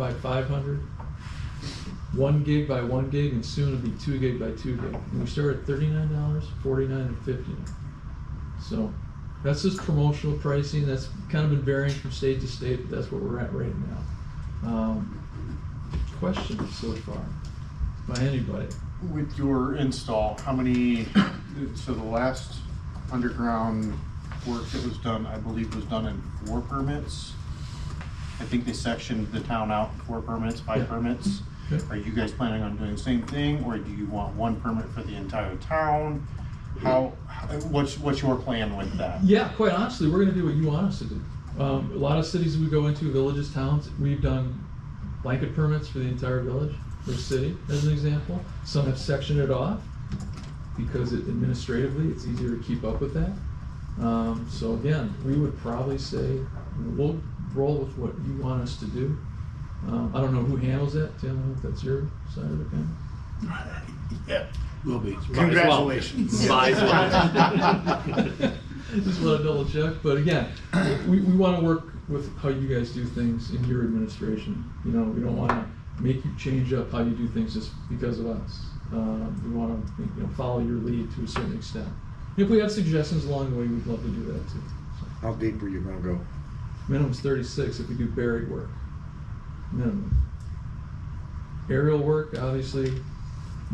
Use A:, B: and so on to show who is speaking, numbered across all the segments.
A: by 500, one gig by one gig, and soon it'll be two gig by two gig. And we start at $39, 49 and 59 So that's just promotional pricing. That's kind of been varying from state to state, but that's what we're at right now. Um, questions so far by anybody?
B: With your install, how many, so the last underground work that was done, I believe was done in four permits? I think they sectioned the town out, four permits,
A: Yeah.
B: five permits.
A: Okay.
B: Are you guys planning on doing the same thing, or do you want one permit for the entire town? How, how- what's, what's your plan with that?
A: Yeah, quite honestly, we're going to do what you want us to do. Um, a lot of cities we go into, villages, towns, we've done blanket permits for the entire village or city, as an example. Some have sectioned it off because it, administratively it's easier to keep up with that. Um, so again, we would probably say we'll roll with what you want us to do. Um, I don't know who handles that. Tim, I don't know if that's your side of the camera.
C: Will be.
B: Congratulations.
C: Might as well.
A: Just want to double check, but again, we, we want to work with how you guys do things in your administration. You know, we don't want to make you change up how you do things just because of us. Um, we want to, you know, follow your lead to a certain extent. If we have suggestions along the way, we'd love to do that too. So,
D: How deep are you gonna go?
A: Minimum's thirty-six if we do buried work, minimum. Aerial work, obviously, you,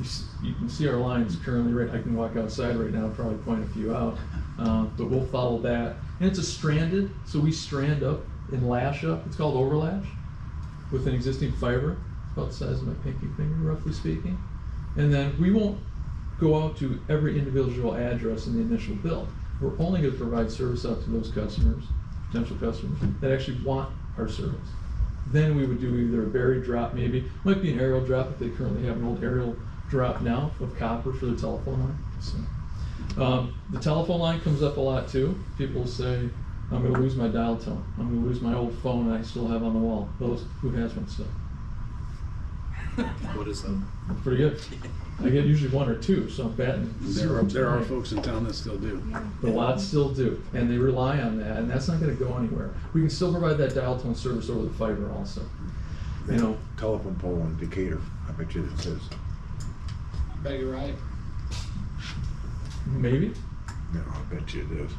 A: s- you can see our lines currently, right, I can walk outside right now, probably point a few out. Um, but we'll follow that, and it's a stranded, so we strand up and lash up, it's called overlash, with an existing fiber, about the size of my pinky finger, roughly speaking. And then we won't go out to every individual address in the initial build. We're only gonna provide service out to those customers, potential customers, that actually want our service. Then we would do either a buried drop maybe, might be an aerial drop if they currently have an old aerial drop now of copper for their telephone line, so. Um, the telephone line comes up a lot too. People say, I'm gonna lose my dial tone, I'm gonna lose my old phone I still have on the wall. Those, who has one still?
C: What is that?
A: Pretty good. I get usually one or two, so I'm batting
C: There
A: zero.
C: are, there are folks in town that still do.
A: But lots still do, and they rely on that, and that's not gonna go anywhere. We can still provide that dial tone service over the fiber also. You know,
D: Telephone pole in Decatur, I bet you it says,
E: Bet you're right.
D: Mm-hmm.
A: maybe.
D: no, I bet you it is.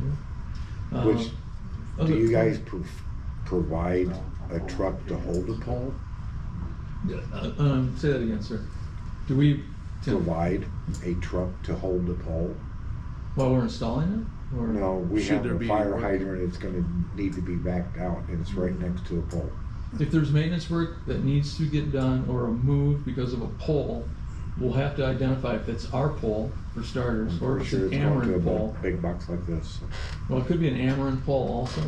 A: Um,
D: Which,
A: other-
D: Do you guys pro- provide a truck to hold the pole?
A: Uh, Um, say that again, sir. Do we, Tim,
D: Provide a truck to hold the pole?
A: while we're installing it? Or-
D: No, we
C: Should
D: have
C: there
D: a
C: be
D: fire
C: work?
D: hydrant, it's gonna need to be backed out, and it's right next to a pole.
A: If there's maintenance work that needs to get done or a move because of a pole, we'll have to identify if it's our pole for starters,
D: I'm
A: or if
D: pretty
A: it's
D: sure
A: an
D: it's going to a
A: Ameren
D: bu-
A: pole.
D: big box like this.
A: Well, it could be an Ameren pole also.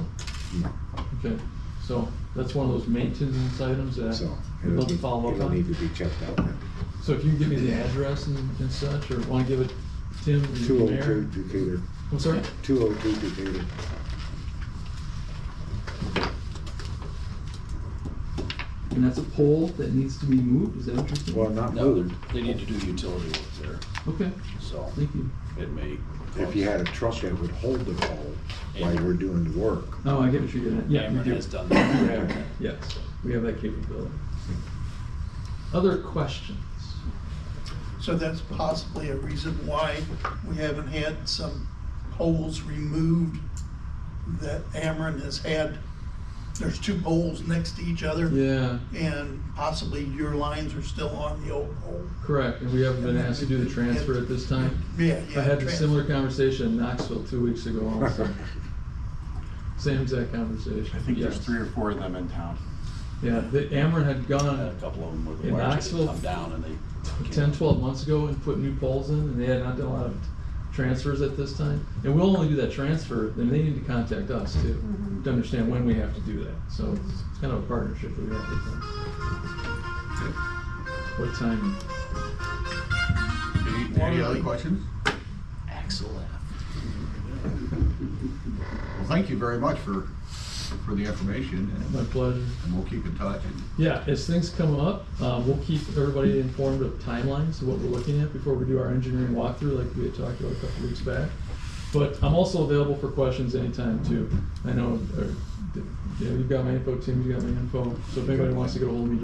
A: Okay, so that's one of those maintenance items that
D: So,
A: we'd
D: it'll
A: love to
D: need-
A: follow up
D: it'll need to
A: on.
D: be checked out then.
A: So if you can give me the address and, and such, or wanna give it Tim or
D: Two
A: you
D: oh two
A: Mayor?
D: Decatur,
A: I'm sorry?
D: two oh two Decatur.
A: And that's a pole that needs to be moved, is that what you're saying?
D: Well, not
C: No,
D: moved,
C: they're- they need to do utility work
A: Okay,
C: there, so
A: thank you.
C: it may.
D: if you had a truck that would hold the pole while we're doing the work.
A: Oh, I get what you're getting at, yeah, we
C: Ameren
A: do.
C: has done that.
A: Yeah, Yes, we have that capability. Other questions?
F: So that's possibly a reason why we haven't had some poles removed that Ameren has had. There's two poles next to each other.
A: Yeah,
F: And possibly your lines are still on the old pole.
A: correct, and we haven't been asked to do the transfer at this time.
F: Yeah, yeah.
A: I had a
F: trans-
A: similar conversation in Knoxville two weeks ago also. Same exact conversation.
B: I think there's
A: yes.
B: three or four of them in town.
A: Yeah, the Ameren had
C: A
A: gone
C: couple of them where the
A: In
C: wires
A: Knoxville,
C: had come down and they.
A: 10, 12 months ago and put new poles in, and they had not done a lot of transfers at this time. And we'll only do that transfer, then they need to contact us too, to understand when we have to do that. So it's it's kind of a partnership that we have with them. What time?
G: Any, any other questions?
C: Axle left.
G: Well, thank you very much for, for the information,
A: My
G: and-
A: pleasure.
G: and we'll keep in touch. and-
A: Yeah, as things come up, uh, we'll keep everybody informed of timelines, what we're looking at before we do our engineering walkthrough, like we had talked about a couple weeks back. But I'm also available for questions anytime too. I know, uh, yeah, you've got my info, Tim, you've got my info. So if anybody wants to get a hold of me